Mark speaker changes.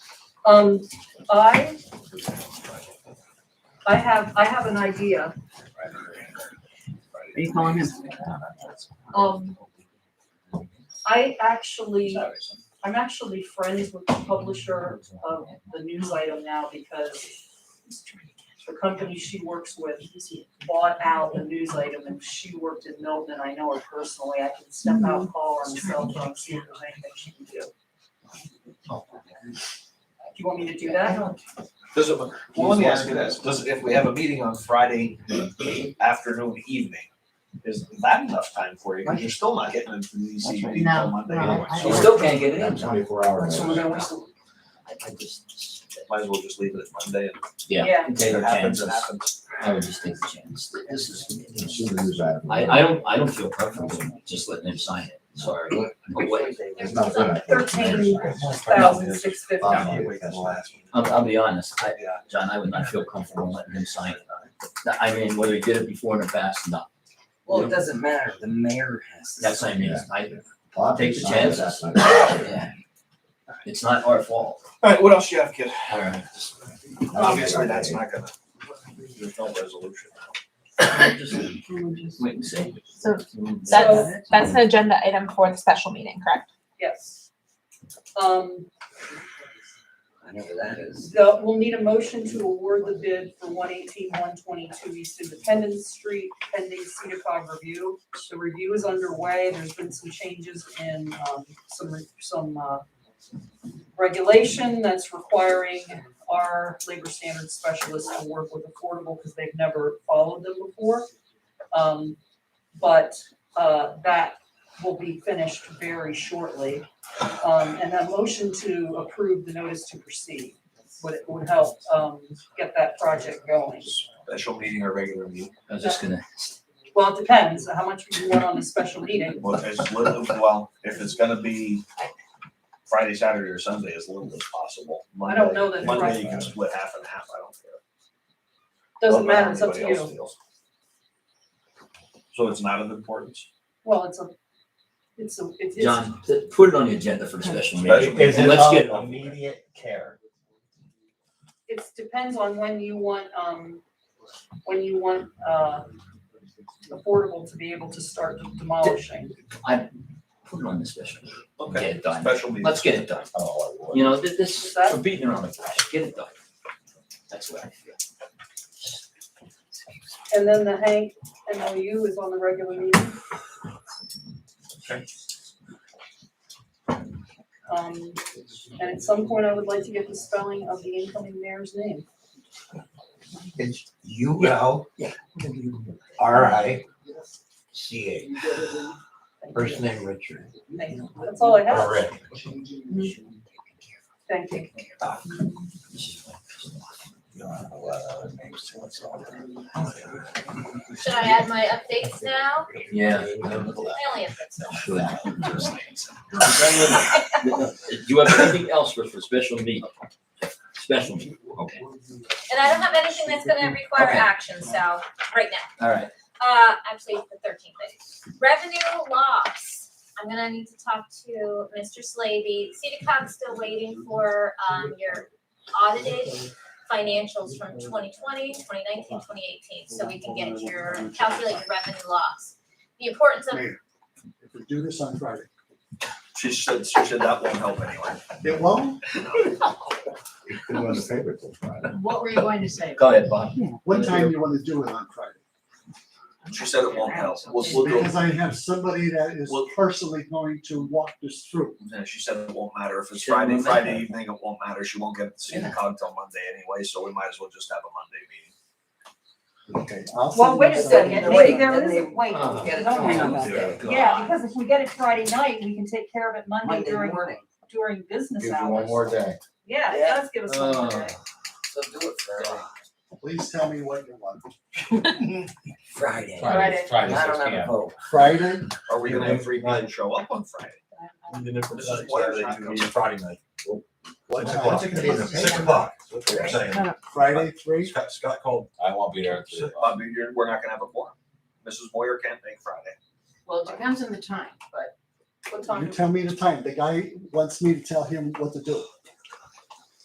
Speaker 1: Um, I, I have, I have an idea.
Speaker 2: Are you calling him?
Speaker 1: Um, I actually, I'm actually friends with the publisher of the news item now because the company she works with bought out the news item and she worked in Milton. I know her personally. I can step out, call her on the cell phone, see if there's anything she can do. Do you want me to do that?
Speaker 3: Does it, well, let me ask you this, does, if we have a meeting on Friday afternoon, evening, is that enough time for you? Because you're still not getting into the E EC meeting
Speaker 2: No,
Speaker 3: till Monday
Speaker 2: no,
Speaker 3: anyway.
Speaker 2: I-
Speaker 3: so
Speaker 4: You still can't get it in.
Speaker 5: Twenty-four hours.
Speaker 3: So we're gonna waste, it.
Speaker 4: I I just,
Speaker 3: might as well just leave it at Monday and
Speaker 4: Yeah.
Speaker 1: Yeah,
Speaker 4: take
Speaker 3: if
Speaker 4: the
Speaker 3: it happens, it
Speaker 4: chances.
Speaker 3: happens.
Speaker 4: I would just take the chance. This is,
Speaker 5: Should use that.
Speaker 4: I, I don't, I don't feel comfortable just letting him sign it. Sorry. But wait,
Speaker 5: It's not good.
Speaker 1: Thirteen thousand six fifty.
Speaker 5: Yeah.
Speaker 3: Can't wait till last minute.
Speaker 4: I'll, I'll be honest, I,
Speaker 3: Yeah.
Speaker 4: John, I would not feel comfortable letting him sign it. I mean, whether he did it before in the past, no.
Speaker 6: Well, it doesn't matter, the mayor has. to
Speaker 4: That's
Speaker 6: sign
Speaker 4: what I mean. I,
Speaker 5: I'll
Speaker 4: Take the
Speaker 5: sign it,
Speaker 4: chances.
Speaker 5: that's not-
Speaker 4: yeah. It's not our fault.
Speaker 3: All right, what else you have, kid?
Speaker 4: All right.
Speaker 3: Obviously, that's not gonna, there's no resolution
Speaker 4: Just wait and see.
Speaker 7: So that's, that's an agenda item for the special meeting, correct?
Speaker 1: Yes. Um,
Speaker 6: it. I know where that is.
Speaker 1: the, we'll need a motion to award the bid for one eighteen, one twenty-two East Independence Street pending Cedar Cog review. The review is underway. There's been some changes in, um, some, some, uh, regulation that's requiring our labor standards specialists to work with affordable because they've never followed them before. Um, but, uh, that will be finished very shortly. Um, and a motion to approve the notice to proceed would, would help, um, get that project going.
Speaker 3: now. Special meeting or regular meeting?
Speaker 4: I was just gonna,
Speaker 1: Well, it depends, how much you want on the special meeting.
Speaker 3: Well, as little, well, if it's gonna be Friday, Saturday, or Sunday, as little as possible.
Speaker 1: I don't know that
Speaker 3: Monday,
Speaker 1: Friday-
Speaker 3: you can split half and half, I don't care.
Speaker 1: Doesn't
Speaker 3: Don't know how
Speaker 1: matter, it's up to
Speaker 3: anybody else
Speaker 1: you.
Speaker 3: feels. So it's not of importance?
Speaker 1: Well, it's a, it's a, it's, it's,
Speaker 4: John, p- put it on the agenda for the special meeting.
Speaker 3: Special meeting.
Speaker 4: Let's get it
Speaker 5: of
Speaker 4: off.
Speaker 5: immediate care?
Speaker 1: it's depends on when you want, um, when you want, uh, affordable to be able to start demolishing.
Speaker 4: Put it on the special meeting. Get
Speaker 3: Okay,
Speaker 4: it done.
Speaker 3: special meeting.
Speaker 4: Let's get it done.
Speaker 5: Oh, I would.
Speaker 4: You know, th- this,
Speaker 1: Is that-
Speaker 4: we're beating around the bush, get it done. That's what I feel.
Speaker 1: And then the Hank MOU is on the regular meeting.
Speaker 3: Okay.
Speaker 1: Um, and at some point, I would like to get the spelling of the incoming mayor's name.
Speaker 8: It's U L R I C A.
Speaker 1: Thank you.
Speaker 8: First name Richard.
Speaker 1: Thank you. That's all I
Speaker 8: Or
Speaker 1: have.
Speaker 8: Rick.
Speaker 1: Thank you.
Speaker 8: You don't have a lot of other names, so it's all there.
Speaker 9: Should I add my updates now?
Speaker 4: Yeah.
Speaker 9: I only have this.
Speaker 4: Good. Do you have anything else for, for special meeting? Special meeting, okay,
Speaker 9: And I don't have anything that's gonna require
Speaker 4: Okay.
Speaker 9: action, so, uh, right now.
Speaker 4: all right.
Speaker 9: Uh, actually, it's the thirteenth, revenue loss. I'm gonna need to talk to Mr. Slavy. CEDACOG's still waiting for, um, your audited financials from 2020, 2019, 2018, so we can get your, calculate your revenue loss. The importance of,
Speaker 10: If we do this on Friday,
Speaker 3: She said, she said that won't help anyway.
Speaker 10: it won't?
Speaker 5: It was favorable, right?
Speaker 2: What were you going to say?
Speaker 4: Go ahead, Bob.
Speaker 10: What time do you want to do it on Friday?
Speaker 3: She said it won't help. We'll, we'll do,
Speaker 10: Because I have somebody that is
Speaker 3: Well-
Speaker 10: personally going to walk this through.
Speaker 3: no, she said it won't matter. If it's
Speaker 4: She said it
Speaker 3: Friday,
Speaker 4: won't
Speaker 3: Friday
Speaker 4: matter.
Speaker 3: evening, it won't matter. She won't get to see the cog till Monday anyway, so we might as well just have a Monday meeting.
Speaker 10: Okay. I'll
Speaker 1: Well,
Speaker 10: send
Speaker 1: wait
Speaker 10: you
Speaker 1: a
Speaker 10: something.
Speaker 1: second,
Speaker 6: Wait,
Speaker 1: maybe there
Speaker 6: then
Speaker 1: is,
Speaker 6: they-
Speaker 1: a- wait,
Speaker 4: Oh.
Speaker 1: there's no-
Speaker 6: Hang on.
Speaker 1: yeah, because if we get it Friday night, we can take care of it Monday
Speaker 6: Monday
Speaker 1: during,
Speaker 6: morning.
Speaker 1: during business
Speaker 5: Give
Speaker 1: hours.
Speaker 5: you one more Uh, day.
Speaker 1: Yeah, it does give us one more
Speaker 4: Oh.
Speaker 1: day.
Speaker 6: So do it Friday.
Speaker 10: Please tell me what you want.
Speaker 6: Friday.
Speaker 2: Friday.
Speaker 8: Friday,
Speaker 6: I don't
Speaker 8: six P
Speaker 6: have a
Speaker 8: M.
Speaker 6: vote.
Speaker 10: Friday?
Speaker 3: Are we gonna have three people show up on Friday?
Speaker 8: And then if it's
Speaker 3: This is why they
Speaker 8: Saturday,
Speaker 3: do
Speaker 8: it'll be
Speaker 3: these-
Speaker 8: Friday night. Six
Speaker 10: time?
Speaker 8: o'clock.
Speaker 10: Six o'clock.
Speaker 8: Six o'clock. That's what they're saying.
Speaker 10: Friday, three?
Speaker 8: Scott, Scott called. I won't be there.
Speaker 3: Bobby, you're, we're not gonna have a forum. Mrs. Moyer can't make Friday.
Speaker 2: Well, it depends on the time, but
Speaker 1: What time?
Speaker 10: You tell me the time. The guy wants me to tell him what to do.